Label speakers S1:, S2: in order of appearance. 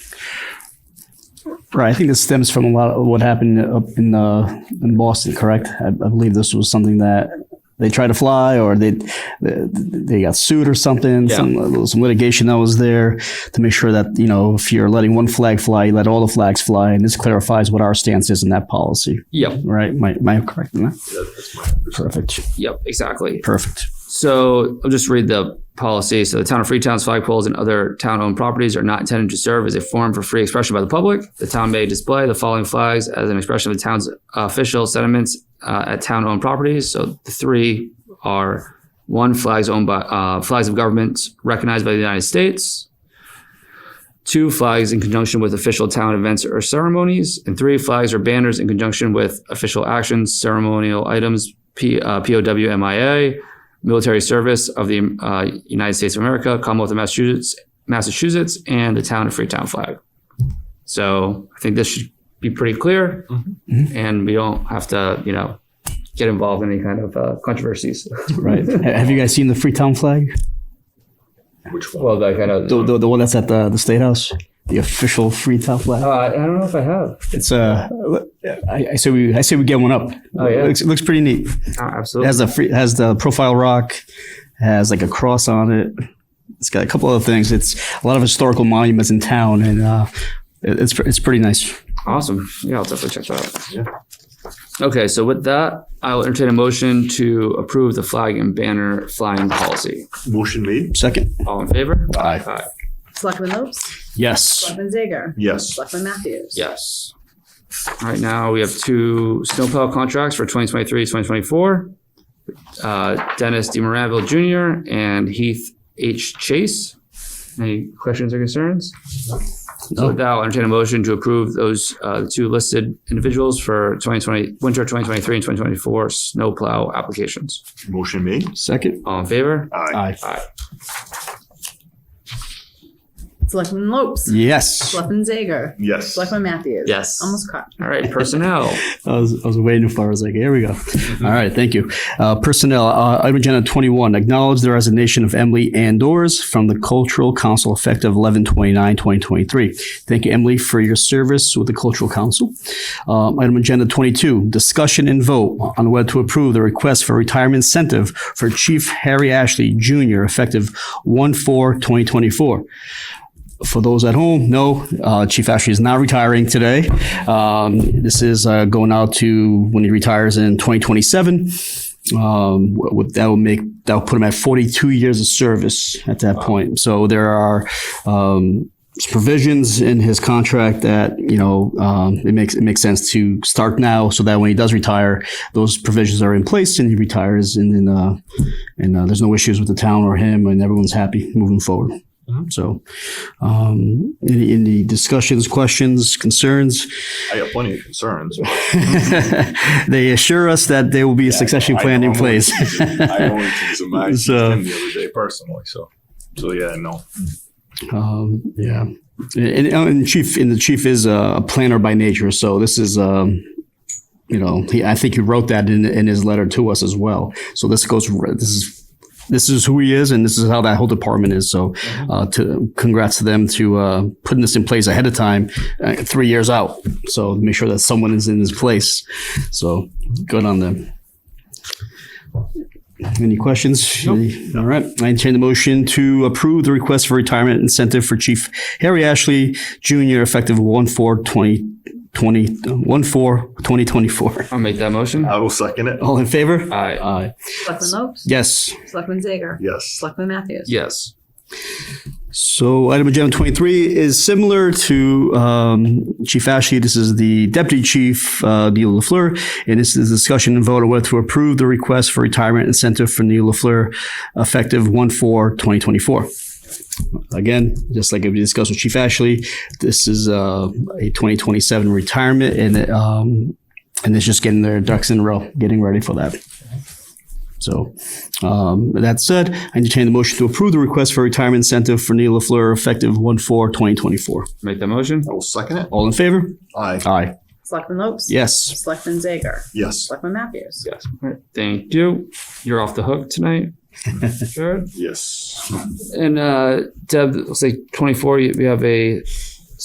S1: Right, I think this stems from a lot of what happened up in uh, in Boston, correct? I, I believe this was something that they tried to fly, or they they, they got sued or something.
S2: Yeah.
S1: Some, uh, some litigation that was there to make sure that you know if you're letting one flag fly, you let all the flags fly, and this clarifies what our stance is in that policy.
S2: Yep.
S1: Right? Am I, am I correct in that?
S2: That's my
S1: Perfect.
S2: Yep, exactly.
S1: Perfect.
S2: So I'll just read the policy. So the town of Freetown's flagpoles and other town-owned properties are not intended to serve as a forum for free expression by the public. The town may display the following flags as an expression of the town's official sentiments uh, at town-owned properties. So the three are one flags owned by uh, flags of governments recognized by the United States. Two flags in conjunction with official town events or ceremonies, and three flags or banners in conjunction with official actions, ceremonial items, P, uh, POW, MIA, military service of the uh, United States of America, Commonwealth of Massachusetts, Massachusetts, and the town of Freetown flag. So I think this should be pretty clear, and we don't have to, you know, get involved in any kind of uh, controversies.
S1: Right. Ha- Have you guys seen the Freetown flag?
S2: Which one? Well, that kind of.
S1: The, the, the one that's at the, the State House? The official Freetown flag?
S2: uh, I don't know if I have.
S1: It's uh, I, I say we I say we get one up.
S2: Oh, yeah.
S1: it looks, it looks pretty neat.
S2: Oh,
S1: It
S2: absolutely.
S1: has the free, has the profile rock, has like a cross on it. It's got a couple other things. It's a lot of historical monuments in town, and uh, it- it's pre- it's pretty nice.
S2: Awesome. Yeah, I'll definitely check that out. Yeah. Okay, so with that, I will entertain a motion to approve the flag and banner flying policy.
S3: Motion made?
S1: Second,
S2: All in favor?
S3: Aye.
S2: Aye.
S4: Selectman Lopes,
S1: yes,
S4: Selectman Zager,
S3: Yes.
S4: Selectman Matthews.
S2: Yes. All right, now we have two snowplow contracts for 2023, 2024. Uh, Dennis D. Moranville Jr. and Heath H. Chase. Any questions or concerns? So with that, I'll entertain a motion to approve those uh, two listed individuals for 2020, winter 2023 and 2024 snowplow applications.
S3: Motion made? Uh,
S1: second,
S2: All in favor?
S3: Aye.
S1: aye,
S4: Selectman Lopes,
S1: yes.
S4: Selectman Zager,
S3: Yes.
S4: Selectman Matthews.
S2: Yes.
S4: Almost caught.
S2: All right, personnel.
S1: I was, I was waiting for. it. I was like, here we go. All right, thank you. Uh, personnel, uh, item agenda twenty-one. Acknowledge the resignation of Emily Andors from the Cultural Council effective 11 2023 Thank you, Emily, for your service with the Cultural Council. Um, item agenda twenty-two. Discussion and vote on whether to approve the request for retirement incentive for Chief Harry Ashley Jr. effective 1-4-2024 for those at home, no, uh, Chief Ashley is not retiring today. Um, this is uh, going out to when he retires in 2027. Um, wh- what that will make that will put him at 42 years of service at that point. So there are um, provisions in his contract that you know um, it makes it makes sense to start now, so that when he does retire, those provisions are in place and he retires, and then uh, and uh, there's no issues with the town or him, and everyone's happy moving forward. So. Um, any, any discussions, questions, concerns?
S3: I got plenty of concerns. but
S1: they assure us that there will be a succession
S3: I
S1: plan
S3: know
S1: in
S3: I'm
S1: place.
S3: only teasing- I only teased him, I teased
S1: So-
S3: him the other day personally, so, so yeah, no.
S1: um, yeah. And, and chief, and the chief is a a planner by nature, so this is, um, you know, he, I think he wrote that in, in his letter to us as well. So this goes, r- this is, this is who he is, and this is how that whole department is. So, uh, to congrats to them to uh, putting this in place ahead of time, uh, three years out. So make sure that someone is in his place. So good on them. Any questions? Any- All right. I entertain the motion to approve the request for retirement incentive for Chief Harry Ashley Jr. effective 1 4 2020, 1 4 2024.
S2: I'll make that motion.
S3: I will second it.
S1: All in favor?
S2: Aye.
S1: Aye.
S4: Selectman Lopes,
S1: Yes.
S4: Selectman Zager,
S3: Yes.
S4: Selectman Matthews.
S2: Yes.
S1: So item agenda 23 is similar to um, Chief Ashley. This is the Deputy Chief, uh, Neil LaFleur, and this is discussion and vote on whether to approve the request for retirement incentive for Neil LaFleur effective 1/4/2024. Again, just like we discussed with Chief Ashley, this is uh, a 2027 retirement, and um, and it's just getting their ducks in a row, getting ready for that. So um, that said, I entertain the motion to approve the request for retirement incentive for Neil LaFleur effective 1/4/2024.
S2: Make that motion.
S3: I will second it.
S1: All in favor?
S3: Aye.
S1: Aye.
S4: Selectman Lopes.
S1: Yes.
S4: Selectman Zager,
S3: Yes.
S4: Selectman Matthews.
S2: Yes. All right. Thank you. You're off the hook tonight. Sure.
S3: Yes.
S2: And uh, Deb, looks like 24, you- we have a